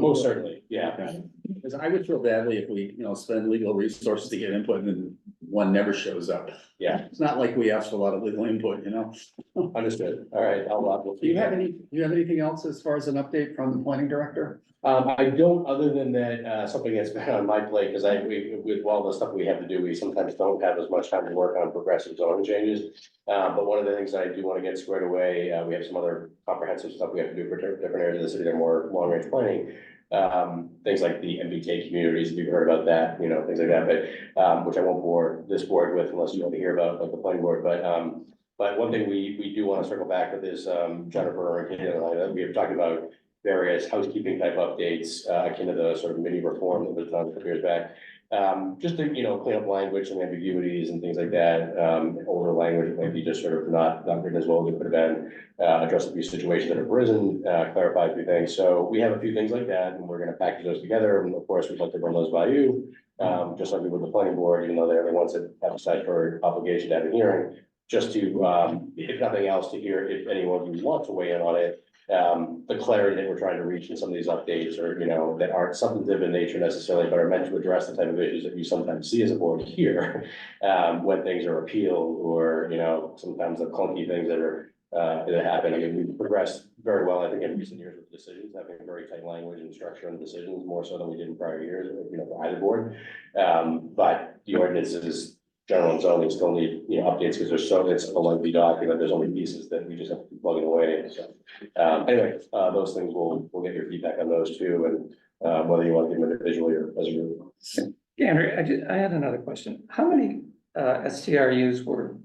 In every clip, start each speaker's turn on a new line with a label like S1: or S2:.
S1: Most certainly, yeah.
S2: Yeah. Because I would feel badly if we, you know, spend legal resources to get input and then one never shows up.
S1: Yeah.
S2: It's not like we asked for a lot of legal input, you know?
S1: Understood. All right, I'll, uh, we'll
S2: Do you have
S1: feedback.
S2: any, do you have anything else as far as an update from the planning director?
S1: Um, I don't, other than that, uh, something that's been on my plate, because I, we, with all the stuff we have to do, we sometimes don't have as much time to work on progressive zoning changes. Uh, but one of the things that I do want to get squared away, uh, we have some other comprehensive stuff we have to do for different different areas of the city that are more long range planning. Um, things like the MBTA communities, if you've heard about that, you know, things like that, but, um, which I won't bore this board with unless you want to hear about, like the planning board, but, um. But one thing we, we do want to circle back with is, um, Jennifer and Katie and I, that we have talked about various housekeeping type updates, uh, akin to the sort of mini reform that was done a couple years back. Um, just to, you know, clean up language and ambiguities and things like that, um, older language might be just sort of not, not written as well as it could have been. Uh, address a few situations that have arisen, uh, clarify a few things, so we have a few things like that, and we're gonna package those together, and of course, we'd like to run those by you. Um, just like we would the planning board, even though they're the ones that have a statutory obligation to have a hearing, just to, um, if nothing else, to hear if anyone who wants to weigh in on it um, the clarity that we're trying to reach in some of these updates or, you know, that aren't substantive in nature necessarily, but are meant to address the type of issues that you sometimes see as a board here. Um, when things are appealed or, you know, sometimes the clunky things that are, uh, that happen. I mean, we've progressed very well, I think, in recent years with decisions, having very tight language and structure on decisions, more so than we did in prior years, you know, for either board. Um, but the ordinances, general and zoning still need, you know, updates because there's so, it's a lengthy document. There's only pieces that we just have to keep plugging away. So um, anyway, uh, those things, we'll, we'll get your feedback on those too, and, uh, whether you want to give them individually or as a group.
S3: Yeah, Andrew, I did, I had another question. How many uh STRUs were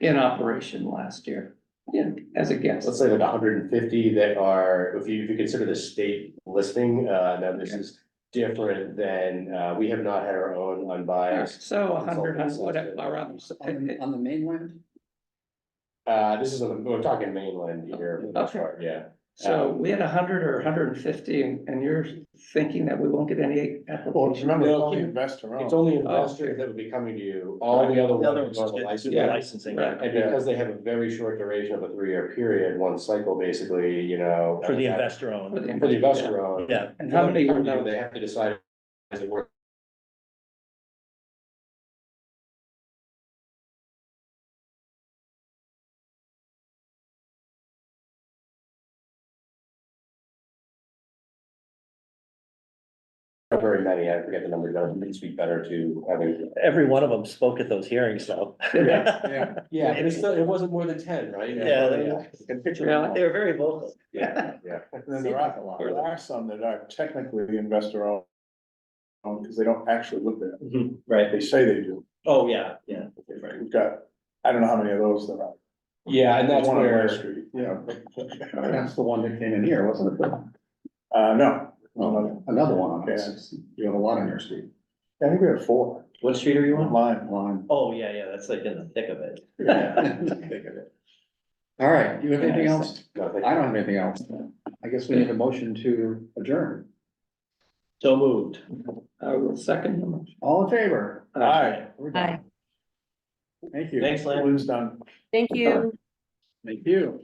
S3: in operation last year? Yeah, as a guess,
S1: Let's say like hundred and fifty that are, if you, if you consider the state listing, uh, now this is different than, uh, we have not had our own unbiased.
S3: so a hundred, hun- whatever, around.
S2: On the, on the mainland?
S1: Uh, this is, on the- we're talking mainland here, for the most
S3: Okay.
S1: part, yeah.
S3: So we had a hundred or hundred and fifty, and and you're thinking that we won't get any
S4: Well,
S3: applications?
S4: remember, it's
S1: No,
S4: only
S1: keep-
S4: investor
S1: It's
S4: owned.
S1: only investors that would be coming to you, all the other ones are licensed.
S3: yeah.
S5: Licensing.
S3: Right.
S1: And because they have a very short duration of a three-year period, one cycle basically, you know. uh,
S5: For the investor owned,
S1: For the investor owned.
S5: yeah,
S3: And how many were
S1: They
S3: those?
S1: have to decide. as it were. Not Very many, I forget the number, but it would speak better to having.
S5: every one of them spoke at those hearings, so.
S1: Yeah.
S2: Yeah.
S1: Yeah, but it's still, it wasn't more than ten, right?
S5: Yeah, they- They were very vocal.
S1: Yeah, yeah.
S4: And then there are, there are some that are technically investor owned. owned, because they don't actually live there.
S5: Right.
S4: They say they do.
S5: Oh, yeah, yeah.
S4: We've got, I don't know how many of those there are.
S1: Yeah, and that's
S4: One on
S1: where.
S4: my street, you know.
S2: That's the one that came in here, wasn't it?
S4: Uh, no.
S2: Oh, Another one on
S4: Yeah.
S2: this. You have a lot on your street.
S4: I think we have four.
S5: What street are you on?
S4: Line.
S2: Line.
S5: Oh, yeah, yeah, that's like in the thick of it.
S2: All right, you have anything else?
S1: No, thank you.
S2: I don't have anything else. I guess we need a motion to adjourn.
S5: So moved.
S3: I will uh, second them.
S2: All in favor?
S3: Uh,
S4: Aye.
S2: We're done.
S6: Hi,
S2: Thank you.
S5: Thanks, Lynn.
S4: Balloon's done.
S6: thank you.
S2: Thank you.